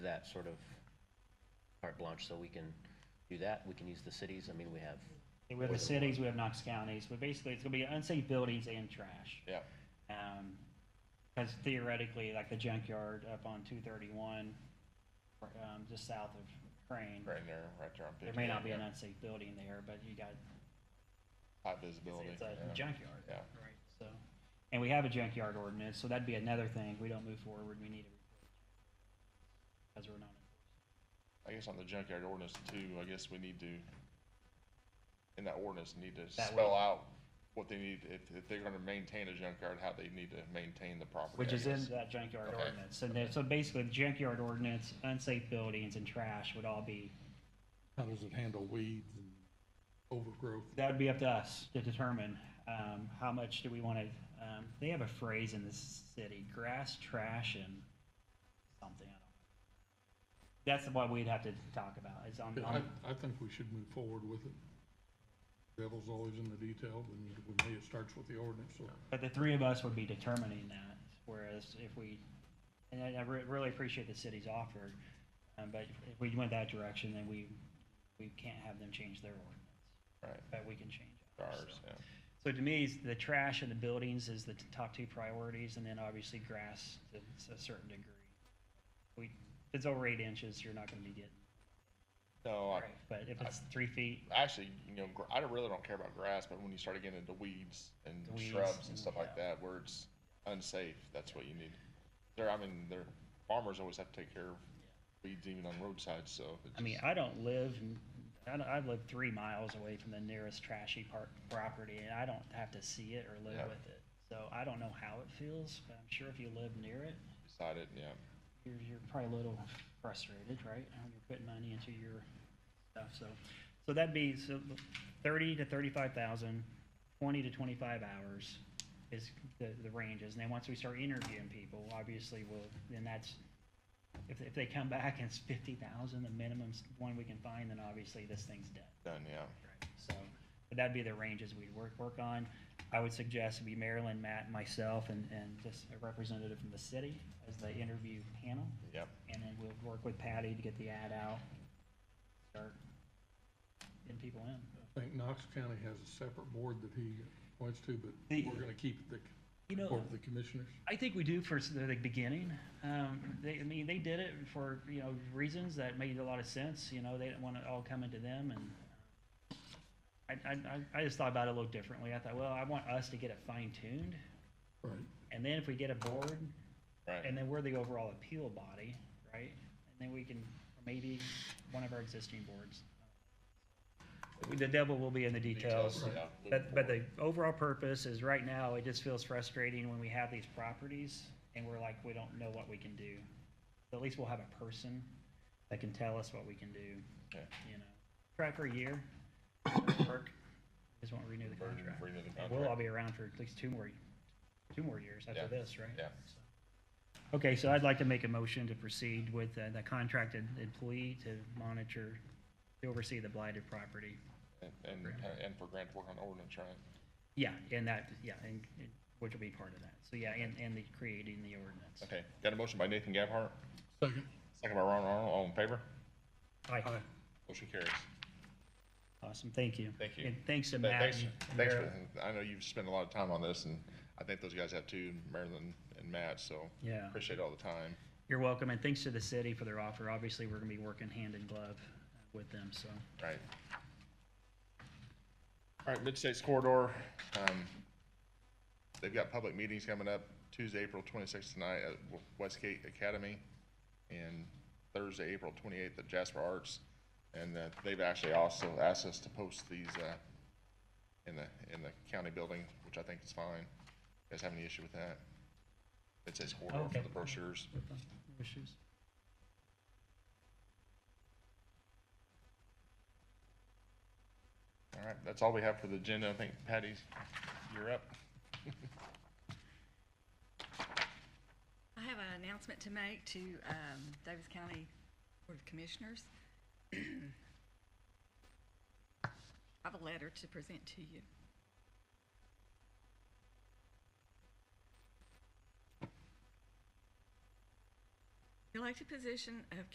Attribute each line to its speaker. Speaker 1: that sort of carte blanche, so we can do that, we can use the cities, I mean, we have,
Speaker 2: We have the cities, we have Knox counties, but basically it's gonna be unsafe buildings and trash.
Speaker 3: Yeah.
Speaker 2: Um 'cause cause theoretically, like the junkyard up on two thirty-one, um, just south of Crane.
Speaker 3: Right there, right there on
Speaker 2: There
Speaker 3: fifty.
Speaker 2: may not be an unsafe building there, but you got,
Speaker 3: High
Speaker 2: it's-
Speaker 3: visibility.
Speaker 2: it's a
Speaker 3: yeah.
Speaker 2: junkyard.
Speaker 3: Yeah.
Speaker 2: Right, so, and we have a junkyard ordinance, so that'd be another thing, we don't move forward, we need to. Cause we're not.
Speaker 3: I guess on the junkyard ordinance too, I guess we need to, in that ordinance, need to
Speaker 2: That
Speaker 3: spell
Speaker 2: way.
Speaker 3: out what they need, if, if they're gonna maintain a junkyard, how they need to maintain the property.
Speaker 2: Which
Speaker 3: I
Speaker 2: is in
Speaker 3: guess.
Speaker 2: that junkyard
Speaker 3: Okay.
Speaker 2: ordinance, and then, so basically, the junkyard ordinance, unsafe buildings and trash would all be
Speaker 4: How does it handle weeds and overgrowth?
Speaker 2: That would be up to us to determine, um, how much do we wanna, um, they have a phrase in this city, grass, trash, and something, I don't know. That's what we'd have to talk about, is on,
Speaker 4: I,
Speaker 2: on,
Speaker 4: I think we should move forward with it. Devil's always in the detail, and we may, it starts with the ordinance, so.
Speaker 2: but the three of us would be determining that, whereas if we, and I, I re- really appreciate the city's offer, um, but if we went that direction, then we, we can't have them change their ordinance,
Speaker 3: Right,
Speaker 2: but we can change ours, so.
Speaker 3: ours, yeah.
Speaker 2: So to me, it's the trash and the buildings is the t- top two priorities, and then obviously grass to s- a certain degree. We, if it's over eight inches, you're not gonna be getting,
Speaker 3: No, I,
Speaker 2: but if it's three feet,
Speaker 3: actually, you know, gr- I don't- really don't care about grass, but when you start getting into weeds and
Speaker 2: The weeds
Speaker 3: shrubs and
Speaker 2: and-
Speaker 3: stuff like that, where it's unsafe, that's what you need. There, I mean, there, farmers always have to take care of weeds even on roadsides, so. it
Speaker 2: I mean,
Speaker 3: just-
Speaker 2: I don't live, n- I don't, I live three miles away from the nearest trashy part, property, and I don't have to see it or live
Speaker 3: Yeah.
Speaker 2: with it. So I don't know how it feels, but I'm sure if you live near it,
Speaker 3: Beside it, yeah.
Speaker 2: you're, you're probably a little frustrated, right? How You're putting money into your stuff, so, so that'd be, so thirty to thirty-five thousand, twenty to twenty-five hours is the, the ranges, and then once we start interviewing people, obviously, we'll, then that's, if, if they come back and it's fifty thousand, the minimum's one we can find, then obviously this thing's dead.
Speaker 3: Done, yeah.
Speaker 2: So, but that'd be the ranges we'd work, work on. I would suggest it'd be Marilyn, Matt, and myself, and, and just a representative from the city as the interview panel.
Speaker 3: Yep.
Speaker 2: And then we'll work with Patty to get the ad out, start getting people in.
Speaker 4: I think Knox County has a separate board that he points to, but
Speaker 2: The-
Speaker 4: we're gonna keep the,
Speaker 2: You know,
Speaker 4: board of the commissioners.
Speaker 2: I think we do for s- the beginning. Um, they, I mean, they did it for, you know, reasons that made a lot of sense, you know, they didn't want it all coming to them and I, I, I- I just thought about it a little differently. I thought, well, I want us to get it fine tuned.
Speaker 4: Right,
Speaker 2: And then if we get a board,
Speaker 3: Right,
Speaker 2: and then we're the overall appeal body, right? And then we can, maybe one of our existing boards. The devil will be in the details.
Speaker 3: Details, yeah.
Speaker 2: But, but the overall purpose is right now, it just feels frustrating when we have these properties and we're like, we don't know what we can do. At least we'll have a person that can tell us what we can do,
Speaker 3: yeah.
Speaker 2: you know? Try for a year, work, just won't renew the contract.
Speaker 3: Renew the
Speaker 2: And we'll all
Speaker 3: contract.
Speaker 2: be around for at least two more, two more years
Speaker 3: Yeah.
Speaker 2: after this, right?
Speaker 3: Yeah.
Speaker 2: Okay, so I'd like to make a motion to proceed with uh, the contracted employee to monitor, to oversee the blighted property.
Speaker 3: And, and, and for grant work on ordinance, right?
Speaker 2: Yeah, and that, yeah, and, and which will be part of that. So, yeah, and, and the creating the ordinance.
Speaker 3: Okay, got a motion by Nathan Gabhart,
Speaker 4: second.
Speaker 3: second by Ron Arnold, all in favor?
Speaker 2: Aye.
Speaker 4: Aye.
Speaker 3: Motion carries.
Speaker 2: Awesome, thank you.
Speaker 3: Thank you.
Speaker 2: And thanks to
Speaker 3: Th-
Speaker 2: Matt.
Speaker 3: Thanks,
Speaker 2: and
Speaker 3: thanks
Speaker 2: Mara.
Speaker 3: for, I know you've spent a lot of time on this, and I think those guys have too, Marilyn and Matt, so.
Speaker 2: Yeah.
Speaker 3: Appreciate all the time.
Speaker 2: You're welcome, and thanks to the city for their offer. Obviously, we're gonna be working hand in glove with them, so.
Speaker 3: Right. All right, Mid-States Corridor, um, they've got public meetings coming up Tuesday, April twenty-sixth tonight at W- Westgate Academy and Thursday, April twenty-eighth at Jasper Arts. And, uh, they've actually also asked us to post these, uh, in the, in the county building, which I think is fine. You Guys have any issue with that? Mid-States Corridor for
Speaker 2: Okay.
Speaker 3: the brochures.
Speaker 2: Issues?
Speaker 3: All right, that's all we have for the agenda. I think Patty, you're up.
Speaker 5: I have an announcement to make to um, Davis County Board of Commissioners. I have a letter to present to you. The elected position of